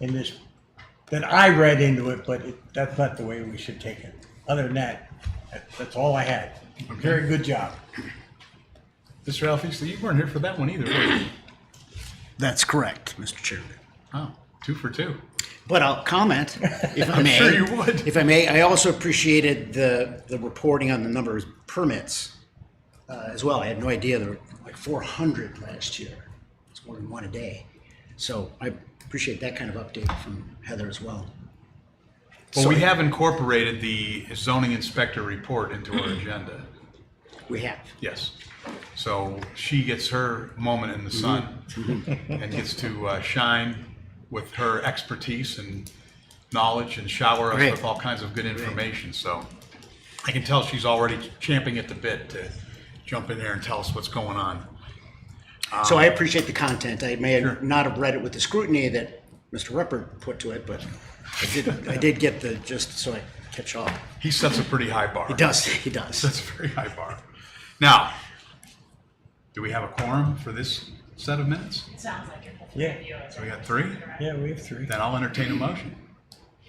in this, that I read into it, but it- that's not the way we should take it. Other than that, that- that's all I had. Very good job. Mr. Alfisto, you weren't here for that one either. were you? That's correct, Mr. Chairman. Oh, two for two. But I'll comment, if I I'm may. sure you would. If I may, I also appreciated the, the reporting on the number of permits uh, as well. I had no idea there were like 400 last year. It's more than one a day. So I appreciate that kind of update from Heather as well. Well, we have incorporated the zoning inspector report into our agenda. We have. Yes. So she gets her moment Mm-hmm. in the sun and gets to uh, shine with her expertise and knowledge and shower us Great. with all kinds of good information. So I can tell she's already champing at the bit to jump in there and tell us what's going on. So Ah. I appreciate the content. I may not have read it with the scrutiny that Mr. Ruppert put to it, but I did, I did get the, just so I catch up. He sets a pretty high bar. He does, he does. That's a very high bar. Now, do we have a quorum for this set of minutes? Sounds like it. Yeah. So we got three? Yeah, we have three. Then I'll entertain a motion.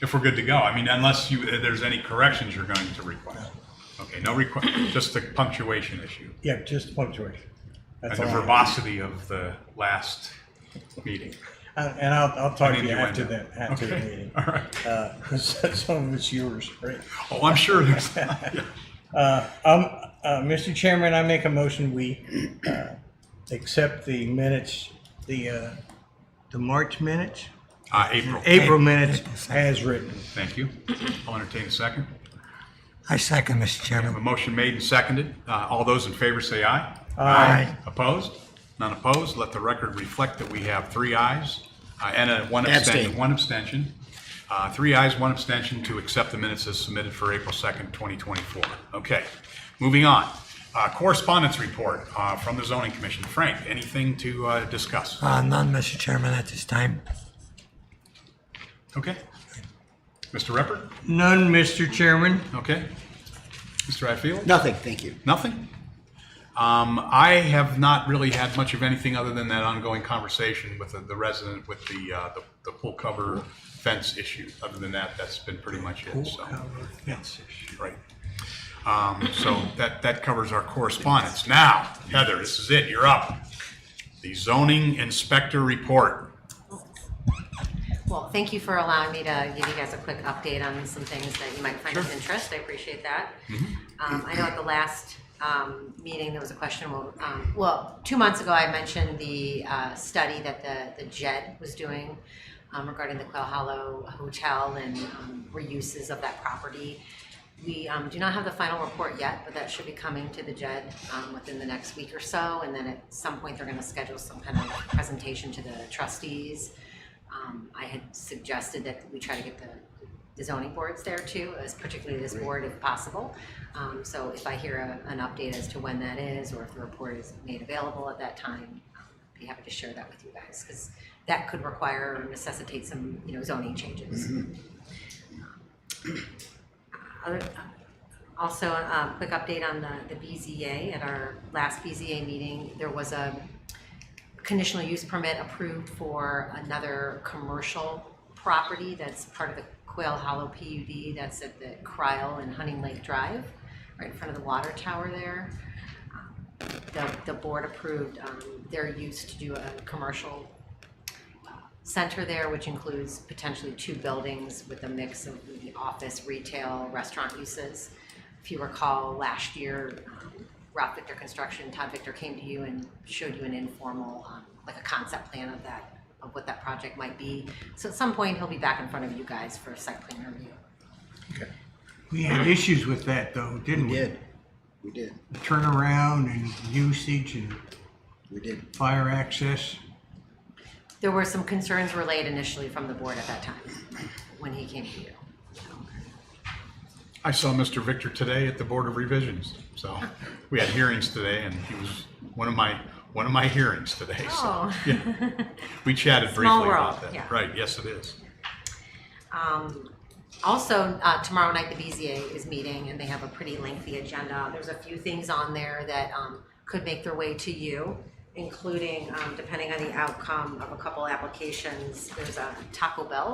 If we're good to go, I mean, unless you, uh, there's any corrections you're going to request. Okay, no request, just the punctuation issue Yeah, just punctuation. and That's the all. I have. verbosity of the last meeting. Uh, And I'll, I'll talk to you Innuendo. after that, after the Okay, meeting. All right. Because some of it's yours, right? Oh, I'm sure there's, Um, uh, Mr. Chairman, I make a motion, we, uh, accept the minutes, the, uh, the March minutes, uh, April. April minutes as written. Thank you. I'll entertain a second. I second, Mr. A Chairman. motion made and seconded. Uh, All those in favor say aye. Aye. Opposed? None opposed. Let the record reflect that we have three ayes uh, and a one Abstain. abstention. One abstention. Uh, Three ayes, one abstention to accept the minutes as submitted for April 2nd, 2024. Okay, moving on. Uh, Correspondence report uh, from the zoning commission. Frank, anything to uh, discuss? Uh, none, Mr. Chairman, at this time. Okay. Mr. Repper? None, Mr. Chairman. Okay. Mr. Ifield? Nothing, thank you. Nothing. Um, I have not really had much of anything other than that ongoing conversation with the, the resident with the, uh, the, the pool cover fence issue. Other than that, that's been pretty much it, so. Right. Um, so that, that covers our correspondence. Now, Heather, this is it, you're up. The zoning inspector report. Well, thank you for allowing me to give you guys a quick update on some things that you might find of interest. I appreciate that. Um, I know at the last, um, meeting, there was a question, well, um, well, two months ago, I mentioned the, uh, study that the, the JED was doing um, regarding the Quail Hollow Hotel and, um, reuses of that property. We um, do not have the final report yet, but that should be coming to the JED um, within the next week or so. And then at some point, they're going to schedule some kind of presentation to the trustees. Um, I had suggested that we try to get the, the zoning boards there too, as particularly this board if possible. Um, so if I hear a, an update as to when that is, or if the report is made available at that time, um, I'd be happy to share that with you guys because that could require or necessitate some, you know, zoning changes. Um, uh, Other- Also, a quick update on the, the BZA. At our last BZA meeting, there was a conditional use permit approved for another commercial property that's part of the Quail Hollow PUD that's at the Cryle and Hunting Lake Drive, right in front of the water tower there. Um, The, the board approved, um, their use to do a commercial center there, which includes potentially two buildings with a mix of the office, retail, restaurant uses. If you recall, last year, um, Rob Victor Construction, Todd Victor came to you and showed you an informal, um, like a concept plan of that, of what that project might be. So at some point, he'll be back in front of you guys for a site plan review. We had issues with that though, didn't We we? did. We did. Turnaround and usage and We did. fire access. There were some concerns relayed initially from the board at that time, when he came to you. I saw Mr. Victor today at the Board of Revisions. So we had hearings today and he was one of my, one of my hearings today, so. Oh. We chatted briefly Small about world, that. yeah. Right, yes, it is. Also, uh, tomorrow night, the BZA is meeting and they have a pretty lengthy agenda. There's a few things on there that, um, could make their way to you. including, um, depending on the outcome of a couple applications, there's a Taco Bell